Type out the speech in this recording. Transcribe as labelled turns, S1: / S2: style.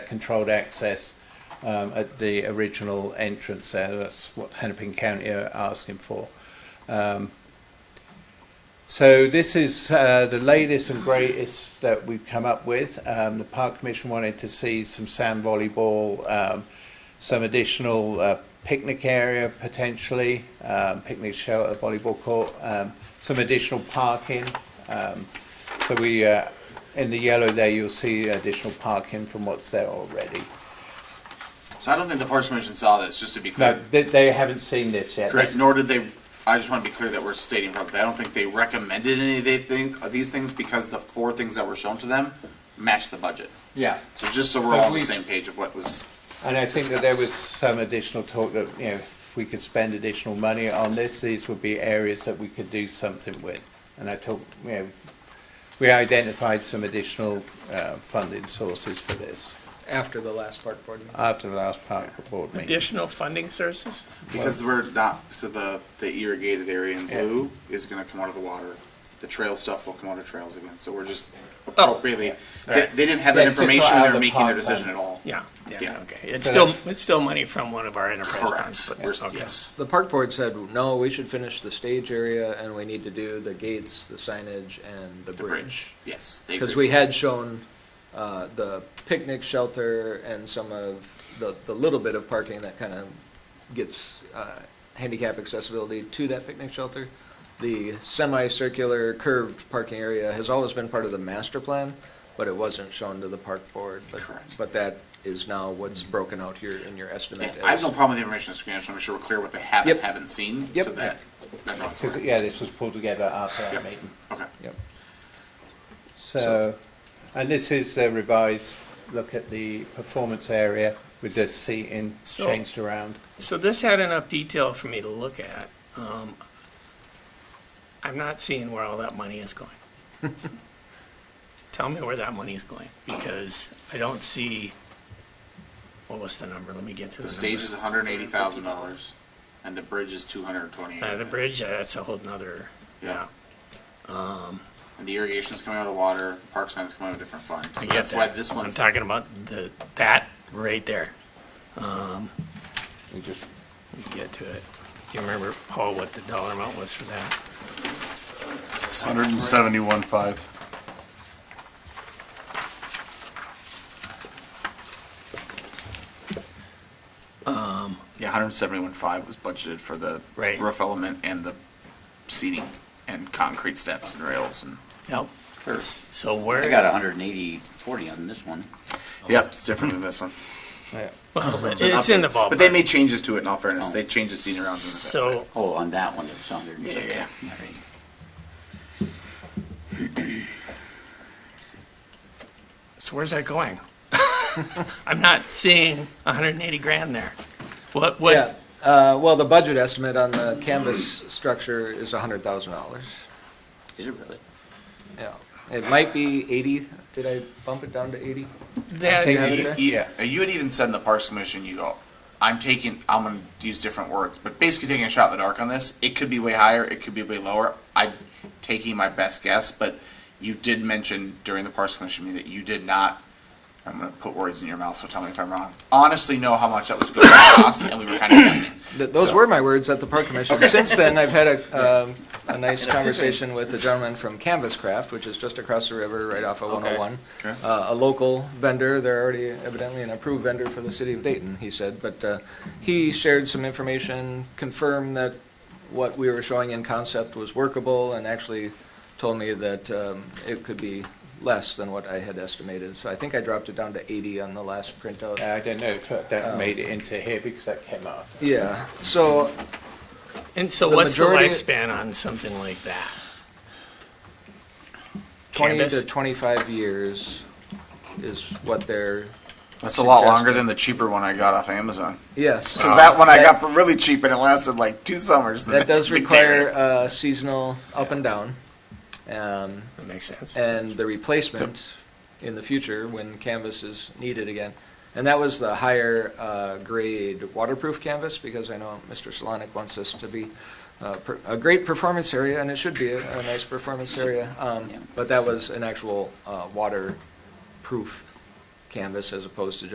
S1: controlled access um, at the original entrance there. That's what Hennepin County are asking for. Um, so this is uh, the latest and greatest that we've come up with. Um, the Park Commission wanted to see some sand volleyball, um, some additional uh, picnic area potentially, um, picnic shelter, volleyball court, um, some additional parking. Um, so we, uh, in the yellow there, you'll see additional parking from what's there already.
S2: So I don't think the Parks Commission saw this, just to be
S1: No,
S2: clear.
S1: they, they haven't seen this yet.
S2: Correct, nor did they, I just want to be clear that we're stating probably, I don't think they recommended any of they think, of these things because the four things that were shown to them matched the budget.
S1: Yeah.
S2: So just so we're
S1: But
S2: all on the
S1: we-
S2: same page of what was,
S1: And I think that there was some additional talk that, you know, if we could spend additional money on this, these would be areas that we could do something with. And I talked, you know, we identified some additional uh, funding sources for this
S3: after the last park board meeting.
S1: after the last park board meeting.
S4: Additional funding sources?
S2: because we're not, so the, the irrigated area in blue is gonna come out of the water. The trail stuff will come out of trails again, so we're just appropriately, they, they didn't have
S1: Oh, Yeah,
S2: that
S1: it's just not out
S2: information when they
S1: of
S2: were
S1: the
S2: making their
S1: pot plan.
S2: decision at all.
S4: Yeah,
S2: Yeah.
S4: yeah, okay. It's
S1: So
S4: still,
S1: that's-
S4: it's still money from one of our enterprise funds,
S2: Correct.
S4: but,
S2: We're-
S4: okay.
S2: yes.
S3: The park board said, no, we should finish the stage area and we need to do the gates, the signage and the
S2: The bridge,
S3: bridge.
S2: yes. they
S3: Because
S2: agree.
S3: we had shown, uh, the picnic shelter and some of the, the little bit of parking that kind of gets, uh, handicap accessibility to that picnic shelter. The semicircular curved parking area has always been part of the master plan, but it wasn't shown to the park board. But-
S2: Correct.
S3: But that is now what's broken out here in your estimate.
S2: I have
S3: as-
S2: no problem with the information on the screen, I just want to make sure we're clear what they have and
S3: Yep.
S2: haven't seen,
S3: Yep.
S2: so that everyone's
S1: Because,
S2: aware.
S1: yeah, this was pulled together after
S2: Yeah.
S1: our meeting.
S2: Okay.
S3: Yep.
S1: So, and this is a revised look at the performance area with the seating
S4: So-
S1: changed around.
S4: So this had enough detail for me to look at. Um, I'm not seeing where all that money is going. Tell me where that money is going, because I don't see, what was the number? Let me get to the
S2: The
S4: number.
S2: stage is hundred and eighty thousand dollars, and the bridge is two hundred and twenty.
S4: Uh, the bridge, uh, that's a whole nother, yeah.
S2: Yeah. And the irrigation is coming out of water, park sign is coming out of a different fund.
S4: I
S2: So
S4: get
S2: that's why
S4: that.
S2: this
S4: I'm
S2: one's,
S4: talking about the, that right there.
S1: We just
S4: We Get to it. Do you remember, Paul, what the dollar amount was for that?
S5: Hundred and seventy-one five.
S2: yeah, hundred and seventy-one five was budgeted for the
S4: Right.
S2: roof element and the seating and concrete steps and rails and.
S4: Yep. So where?
S6: I got a hundred and eighty, forty on this one.
S2: Yep, it's different than this one.
S4: Well, but It's in the ballpark.
S2: But they made changes to it in all fairness. They changed the seating around. and that's it.
S4: So,
S6: Oh, on that one, it's hundred and
S2: Yeah,
S6: seventy.
S2: yeah.
S4: so where's that going? I'm not seeing hundred and eighty grand there. What,
S3: Yeah,
S4: what,
S3: uh, well, the budget estimate on the canvas structure is hundred thousand dollars.
S6: Is it really?
S3: Yeah. It might be eighty, did I bump it down to eighty?
S4: that,
S1: think-
S3: Have it there?
S2: Yeah, you had even said in the Parks Commission, you go, I'm taking, I'm gonna use different words, but basically taking a shot in the dark on this. It could be way higher, it could be way lower. I'm taking my best guess, but you did mention during the Parks Commission meeting that you did not, I'm gonna put words in your mouth, so tell me if I'm wrong. Honestly know how much that was going to cost, and we were kind of guessing.
S3: Th- Those
S2: So-
S3: were my words at the park commission. Since then, I've had a, um, a nice conversation with the gentleman from Canvas Craft, which is just across the river, right off of one oh one.
S2: Okay.
S3: Uh, a local vendor, they're already evidently an approved vendor for the city of Dayton, he said, but, uh, he shared some information, confirmed that what we were showing in concept was workable, and actually told me that, um, it could be less than what I had estimated, so I think I dropped it down to eighty on the last printout.
S1: Uh, I don't know if that made it into here because that came after.
S3: Yeah, so
S4: and so
S3: The
S4: what's the
S3: majority-
S4: lifespan on something like that?
S3: 20 to
S4: Canvas?
S3: 25 years is what they're,
S2: That's a lot
S3: longer
S2: longer than the cheaper one I got off Amazon.
S3: yes.
S2: Because that one I got for really cheap, and it lasted like two summers.
S3: That does require uh, seasonal up and down. Um,
S4: That makes sense.
S3: and the replacement in the future when canvas is needed again. And that was the higher uh, grade waterproof canvas because I know Mr. Solonic wants this to be uh, per- a great performance area, and it should be a, a nice performance area. Um,
S6: Yeah.
S3: But that was an actual uh, waterproof canvas as opposed to